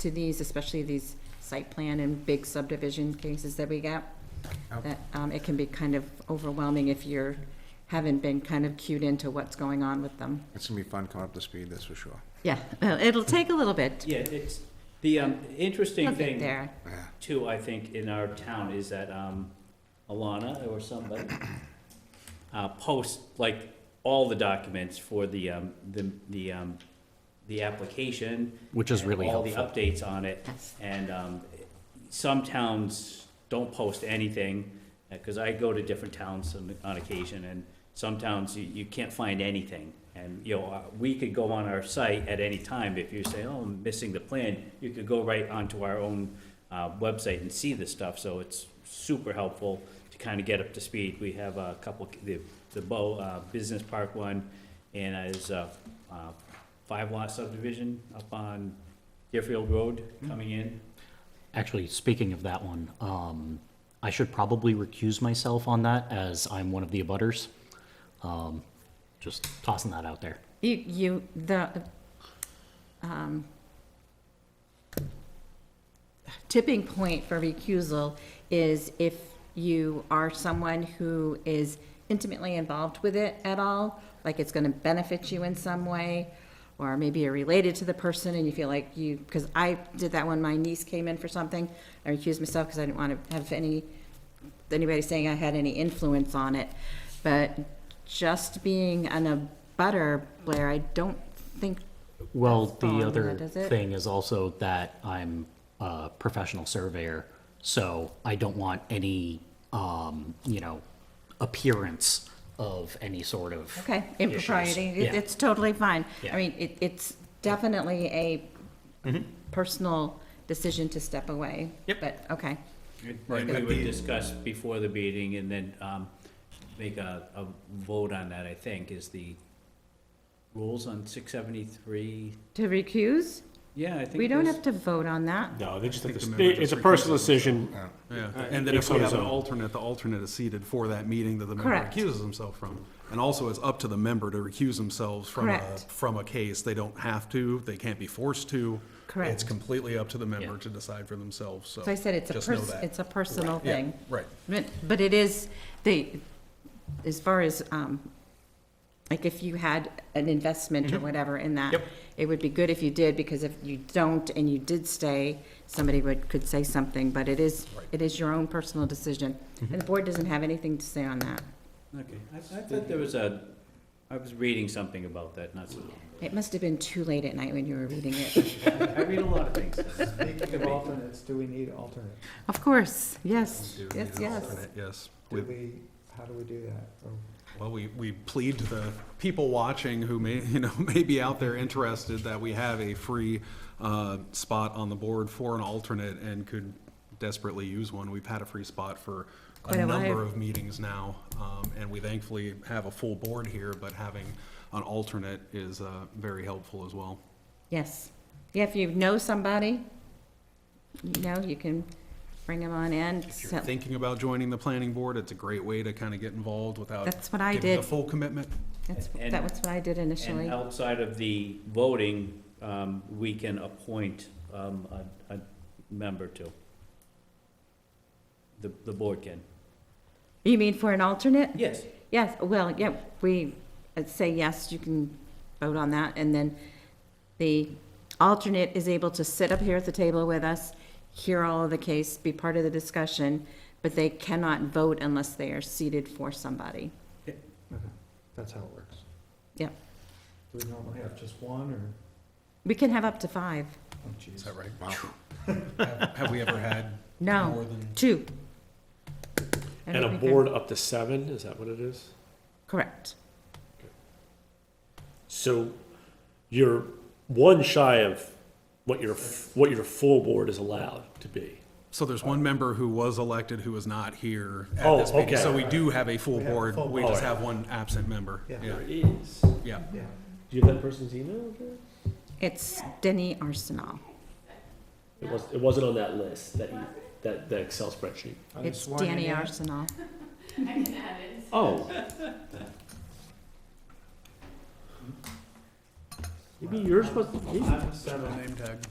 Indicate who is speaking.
Speaker 1: to these, especially these site plan and big subdivision cases that we get. That, um, it can be kind of overwhelming if you're, haven't been kind of cued into what's going on with them.
Speaker 2: It's gonna be fun coming up to speed, that's for sure.
Speaker 1: Yeah, well, it'll take a little bit.
Speaker 3: Yeah, it's, the um,
Speaker 1: We'll
Speaker 3: interesting
Speaker 1: get
Speaker 3: thing
Speaker 1: there.
Speaker 2: Yeah.
Speaker 3: too, I think, in our town is that um, Alana or somebody uh, posts like all the documents for the, um, the, the, um, the application.
Speaker 4: Which is
Speaker 3: and
Speaker 4: really
Speaker 3: All
Speaker 4: helpful.
Speaker 3: the updates on it.
Speaker 1: Yes.
Speaker 3: And um, some towns don't post anything, because I go to different towns on- on occasion, and some towns, you- you can't find anything. And, you know, uh, we could go on our site at any time, if you say, oh, I'm missing the plan, you could go right onto our own uh, website and see the stuff, so it's super helpful to kind of get up to speed. We have a couple, the the Bow uh, Business Park one, and uh, is a five lot subdivision up on Deerfield Road coming in.
Speaker 4: Actually, speaking of that one, um, I should probably recuse myself on that as I'm one of the abutters. Um, just tossing that out there.
Speaker 1: You, you, the, um, tipping point for recusal is if you are someone who is intimately involved with it at all, like it's gonna benefit you in some way, or maybe you're related to the person and you feel like you, because I did that when my niece came in for something, I recused myself because I didn't want to have any anybody saying I had any influence on it, but just being an a butter, Blair, I don't think,
Speaker 4: Well,
Speaker 1: That's
Speaker 4: the
Speaker 1: fine,
Speaker 4: other
Speaker 1: that is it.
Speaker 4: thing is also that I'm a professional surveyor, so I don't want any, um, you know, appearance of any sort of.
Speaker 1: okay,
Speaker 4: issues.
Speaker 1: impropriety, it-
Speaker 4: Yeah.
Speaker 1: it's totally fine. I
Speaker 4: Yeah.
Speaker 1: mean, it, it's definitely a personal decision to step away.
Speaker 4: Yep.
Speaker 1: But, okay,
Speaker 3: And we would discuss before the meeting and then um, make a, a vote on that, I think, is the rules on six seventy-three.
Speaker 1: to recuse,
Speaker 3: Yeah, I think.
Speaker 1: we don't
Speaker 3: there's-
Speaker 1: have to vote on that.
Speaker 5: No, they just, have
Speaker 6: think
Speaker 5: to-
Speaker 6: the
Speaker 5: they-
Speaker 6: member
Speaker 5: it's a
Speaker 6: just
Speaker 5: personal
Speaker 6: recuses
Speaker 5: decision.
Speaker 6: Yeah,
Speaker 5: Alright.
Speaker 6: and then Uh, if we
Speaker 5: Except
Speaker 6: have an
Speaker 5: so.
Speaker 6: alternate, the alternate is seated for that meeting that the member
Speaker 1: Correct.
Speaker 6: recuses himself from. And also, it's up to the member to recuse themselves from a,
Speaker 1: Correct.
Speaker 6: from a case. They don't have to, they can't be forced to. It's
Speaker 1: Correct.
Speaker 6: completely up to the member
Speaker 4: Yeah.
Speaker 6: to decide for themselves, so.
Speaker 1: So I said it's a
Speaker 6: just know
Speaker 1: pers-
Speaker 6: that.
Speaker 1: it's a personal
Speaker 6: Yeah,
Speaker 1: thing.
Speaker 6: Right.
Speaker 1: But, but it is, the, as far as, um, like if you had an investment or whatever in that,
Speaker 4: Yep.
Speaker 1: it would be good if you did, because if you don't and you did stay, somebody would, could say something, but it is, it is your own personal decision. And the board doesn't have anything to say on that.
Speaker 3: Okay, I, I thought there was a, I was reading something about that, not so long.
Speaker 1: It must have been too late at night when you were reading it.
Speaker 3: I read a lot of things.
Speaker 7: Speaking of alternates, do we need alternates?
Speaker 1: Of course, yes,
Speaker 6: Do
Speaker 1: yes,
Speaker 6: need an
Speaker 1: yes.
Speaker 6: alternate, Yes.
Speaker 7: Do
Speaker 6: With-
Speaker 7: we, how do we do that? Oh. Or
Speaker 6: Well, we, we plead to the people watching who may, you know, may be out there interested that we have a free uh, spot on the board for an alternate and could desperately use one. We've had a free spot for
Speaker 1: Quite
Speaker 6: a
Speaker 1: a
Speaker 6: number
Speaker 1: while.
Speaker 6: of meetings now, um, and we thankfully have a full board here, but having an alternate is uh, very helpful as well.
Speaker 1: Yes. Yeah, if you know somebody, you know, you can bring them on in.
Speaker 6: If
Speaker 1: So-
Speaker 6: you're thinking about joining the planning board, it's a great way to kind of get involved without
Speaker 1: That's what I
Speaker 6: giving the
Speaker 1: did.
Speaker 6: full commitment.
Speaker 1: That's,
Speaker 3: And-
Speaker 1: that was what I did initially.
Speaker 3: And outside of the voting, um, we can appoint um, a, a member to. The, the board can.
Speaker 1: You mean for an alternate?
Speaker 3: Yes.
Speaker 1: Yes, well, yeah, we uh, say yes, you can vote on that, and then the alternate is able to sit up here at the table with us, hear all of the case, be part of the discussion, but they cannot vote unless they are seated for somebody.
Speaker 7: That's how it works.
Speaker 1: Yep.
Speaker 7: Do we normally have just one or?
Speaker 1: We can have up to five.
Speaker 7: oh, jeez.
Speaker 6: Is that right? Have have we ever had more
Speaker 1: No,
Speaker 6: than?
Speaker 1: two. I
Speaker 5: And a
Speaker 1: don't think I-
Speaker 5: board up to seven, is that what it is?
Speaker 1: Correct.
Speaker 5: So you're one shy of what your, what your full board is allowed to be.
Speaker 6: So there's one member who was elected who is not here at
Speaker 5: Oh,
Speaker 6: this meeting.
Speaker 5: okay.
Speaker 6: So we do have a full
Speaker 7: We have a
Speaker 6: board,
Speaker 7: full
Speaker 6: we
Speaker 5: board.
Speaker 6: just have one absent member.
Speaker 7: Yeah.
Speaker 6: Yeah,
Speaker 5: is.
Speaker 6: yeah.
Speaker 7: Yeah.
Speaker 5: Do you have that person's email address?
Speaker 1: It's Denny Arsenal.
Speaker 5: It was, it wasn't on that list, that, e- that, that Excel spreadsheet.
Speaker 7: Are they
Speaker 1: It's
Speaker 7: sworn in
Speaker 1: Danny
Speaker 7: yet?
Speaker 1: Arsenal.
Speaker 5: Oh. Maybe yours was, maybe-
Speaker 6: Name tag.